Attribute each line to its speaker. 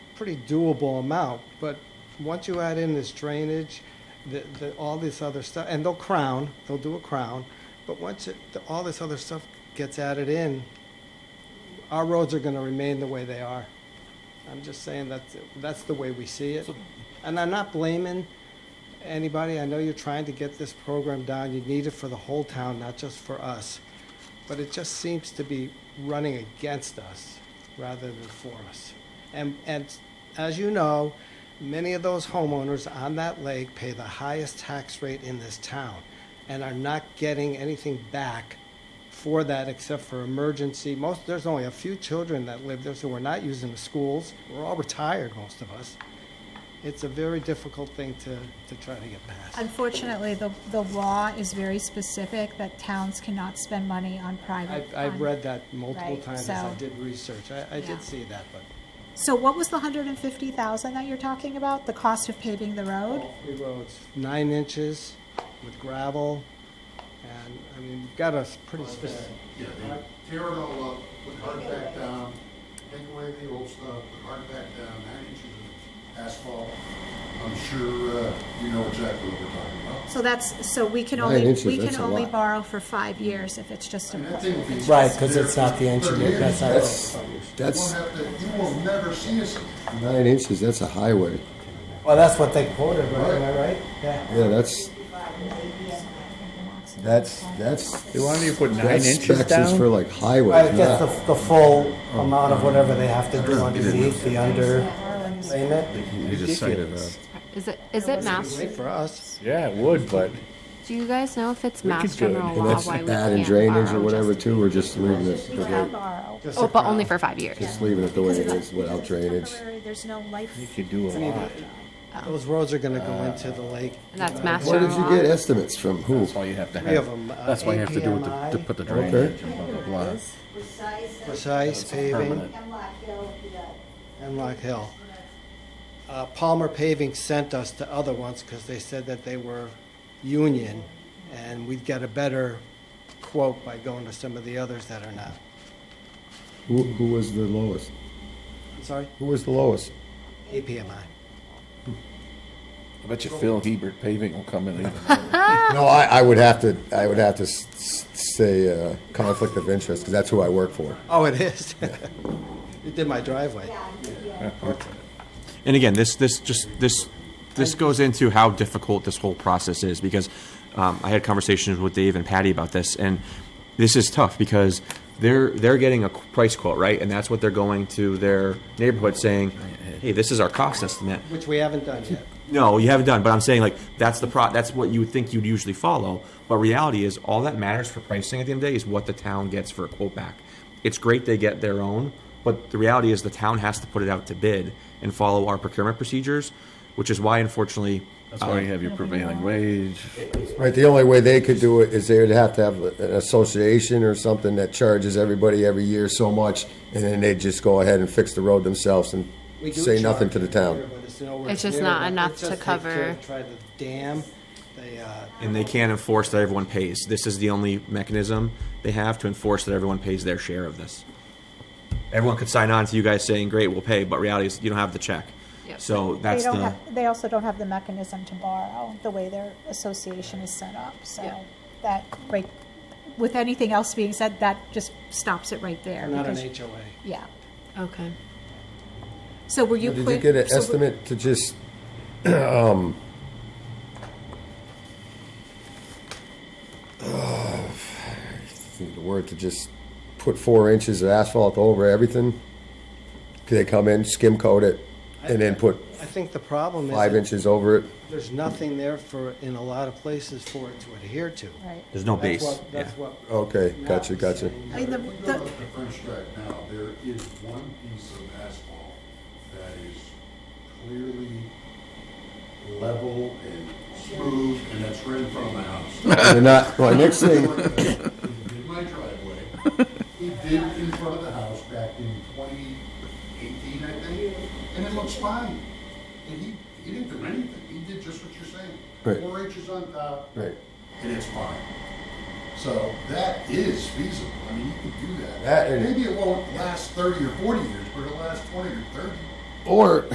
Speaker 1: pretty doable amount, but once you add in this drainage, the, the, all this other stuff, and they'll crown, they'll do a crown, but once it, the- all this other stuff gets added in, our roads are gonna remain the way they are. I'm just saying that's, that's the way we see it. And I'm not blaming anybody, I know you're trying to get this program down, you need it for the whole town, not just for us. But it just seems to be running against us rather than for us. And, and as you know, many of those homeowners on that lake pay the highest tax rate in this town and are not getting anything back for that except for emergency. Most, there's only a few children that live there, so we're not using the schools. We're all retired, most of us. It's a very difficult thing to, to try to get past.
Speaker 2: Unfortunately, the, the law is very specific that towns cannot spend money on private.
Speaker 1: I've, I've
Speaker 2: on-
Speaker 1: read that multiple
Speaker 2: Right,
Speaker 1: times as I
Speaker 2: so-
Speaker 1: did research. I, I
Speaker 2: Yeah.
Speaker 1: did see that, but.
Speaker 2: So what was the hundred and fifty thousand that you're talking about, the cost of paving the road?
Speaker 1: Three roads, nine inches with gravel, and, I mean, you've got a s- pretty specific,
Speaker 3: Yeah, they tear it all up, put hard back down, take away the old stuff, put hard back down, nine inches of asphalt. I'm sure, uh, you know exactly what we're talking about.
Speaker 2: So that's, so we can
Speaker 4: Nine
Speaker 2: only,
Speaker 4: inches,
Speaker 2: we can
Speaker 4: that's a
Speaker 2: only
Speaker 4: lot.
Speaker 2: borrow for five years if it's just a.
Speaker 3: And that thing will be.
Speaker 5: Right, 'cause it's not the engineer,
Speaker 3: engineer.
Speaker 5: that's not-
Speaker 4: That's,
Speaker 3: You won't
Speaker 4: that's
Speaker 3: have to, you will never see us again.
Speaker 4: nine inches, that's a highway.
Speaker 5: Well, that's what they quoted, right? Am I right? Yeah.
Speaker 4: Yeah, that's, that's, that's.
Speaker 6: They wanted you to put nine
Speaker 4: that
Speaker 6: inches
Speaker 4: specs is
Speaker 6: down?
Speaker 4: For like
Speaker 5: Right,
Speaker 4: highways,
Speaker 5: that's
Speaker 4: not,
Speaker 5: the, the full
Speaker 6: Oh.
Speaker 5: amount of whatever they have to do underneath, the under payment.
Speaker 6: You just cited that.
Speaker 7: Is it is it master?
Speaker 1: great for us.
Speaker 6: Yeah, it would, but
Speaker 7: Do you guys know if it's
Speaker 6: We could
Speaker 7: master
Speaker 6: do it.
Speaker 7: general
Speaker 6: And
Speaker 7: law?
Speaker 4: that's
Speaker 7: why we
Speaker 4: bad in
Speaker 7: can't
Speaker 4: drainage or
Speaker 7: borrow
Speaker 4: whatever
Speaker 7: just-
Speaker 4: too, we're just leaving it, the
Speaker 2: Can
Speaker 4: way-
Speaker 2: borrow.
Speaker 1: just
Speaker 7: Oh,
Speaker 1: a
Speaker 7: but
Speaker 1: crown.
Speaker 7: only for five years.
Speaker 4: just leaving it the way
Speaker 2: Because
Speaker 4: it
Speaker 2: it's-
Speaker 4: is without
Speaker 2: because it's
Speaker 4: drainage.
Speaker 2: temporary, There's no life.
Speaker 6: you could do a lot.
Speaker 1: Oh. Those roads are gonna
Speaker 6: Uh,
Speaker 1: go into the lake.
Speaker 7: And that's master
Speaker 4: Where did you
Speaker 7: general
Speaker 4: get
Speaker 7: law.
Speaker 4: estimates from? Who?
Speaker 6: That's all you have to
Speaker 1: Three of
Speaker 6: have.
Speaker 1: them. uh,
Speaker 6: That's why you have to do with the, to put the drainage and blah, blah, blah.
Speaker 1: Precise paving
Speaker 6: Permanent.
Speaker 1: and Lock Hill. Uh, Palmer Paving sent us to other ones because they said that they were union and we'd get a better quote by going to some of the others that are not.
Speaker 4: Who, who was the lowest?
Speaker 1: I'm sorry,
Speaker 4: Who was the lowest?
Speaker 1: APMI.
Speaker 6: I bet you Phil Hebert paving will come in even.
Speaker 4: No, I, I would have to, I would have to s- s- say, uh, conflict of interest, because that's who I work for.
Speaker 1: Oh, it is? You did my driveway.
Speaker 8: And again, this, this, just, this, this goes into how difficult this whole process is, because um, I had conversations with Dave and Patty about this, and this is tough, because they're, they're getting a qu- price quote, right? And that's what they're going to their neighborhood saying, hey, this is our cost estimate.
Speaker 1: Which we haven't done yet.
Speaker 8: No, you haven't done, but I'm saying like, that's the pro, that's what you would think you'd usually follow, but reality is, all that matters for pricing at the end of the day is what the town gets for a quote back. It's great they get their own, but the reality is the town has to put it out to bid and follow our procurement procedures, which is why unfortunately,
Speaker 6: That's why you have your prevailing wage.
Speaker 4: Right, the only way they could do it is they would have to have an association or something that charges everybody every year so much, and then they'd just go ahead and fix the road themselves and
Speaker 1: We do
Speaker 4: say nothing
Speaker 1: charge
Speaker 4: to the
Speaker 1: here,
Speaker 4: town.
Speaker 1: but it's nowhere
Speaker 7: It's just
Speaker 1: near
Speaker 7: not
Speaker 1: enough.
Speaker 7: enough
Speaker 1: It's
Speaker 7: to
Speaker 1: just they
Speaker 7: cover-
Speaker 1: could Try the dam, they, uh,
Speaker 8: and they can't enforce that everyone pays. This is the only mechanism they have to enforce that everyone pays their share of this. Everyone could sign on to you guys saying, great, we'll pay, but reality is you don't have the check.
Speaker 7: Yep.
Speaker 8: So
Speaker 2: They
Speaker 8: that's
Speaker 2: don't
Speaker 8: the,
Speaker 2: have, they also don't have the mechanism to borrow, the way their association is set up,
Speaker 7: Yeah.
Speaker 2: so that, right, with anything else being said, that just stops it right there.
Speaker 1: they're not an
Speaker 2: because-
Speaker 1: HOA.
Speaker 2: Yeah.
Speaker 7: Okay.
Speaker 2: So were you?
Speaker 4: Did you
Speaker 2: put-
Speaker 4: get an
Speaker 2: so were-
Speaker 4: estimate to just, um, uh, think the word to just put four inches of asphalt over everything? Could they come in, skim coat it, and then put
Speaker 1: I think the problem is.
Speaker 4: five
Speaker 1: that
Speaker 4: inches over it?
Speaker 1: There's nothing there for, in a lot of places for it to adhere to.
Speaker 2: Right.
Speaker 8: there's no
Speaker 1: That's
Speaker 8: base.
Speaker 1: what-
Speaker 8: Yeah.
Speaker 1: That's what.
Speaker 4: Okay,
Speaker 1: Matt
Speaker 4: gotcha,
Speaker 1: was
Speaker 4: gotcha.
Speaker 1: saying.
Speaker 2: I mean, the,
Speaker 3: If you go
Speaker 2: the,
Speaker 3: up the French track now, there is one piece of asphalt that is clearly level and smooth, and that's right in front of my house.
Speaker 4: They're not, well, next thing,
Speaker 3: He did my driveway, he did in front of the house back in twenty eighteen, I think, and it looks fine. And he, he didn't do anything, he did just what you're
Speaker 4: Right.
Speaker 3: saying. Four inches on top,
Speaker 4: right,
Speaker 3: and it's fine. So that is feasible. I mean, you can do that.
Speaker 4: That is-
Speaker 3: Maybe it won't last thirty or forty years, but it'll last twenty or thirty.
Speaker 4: or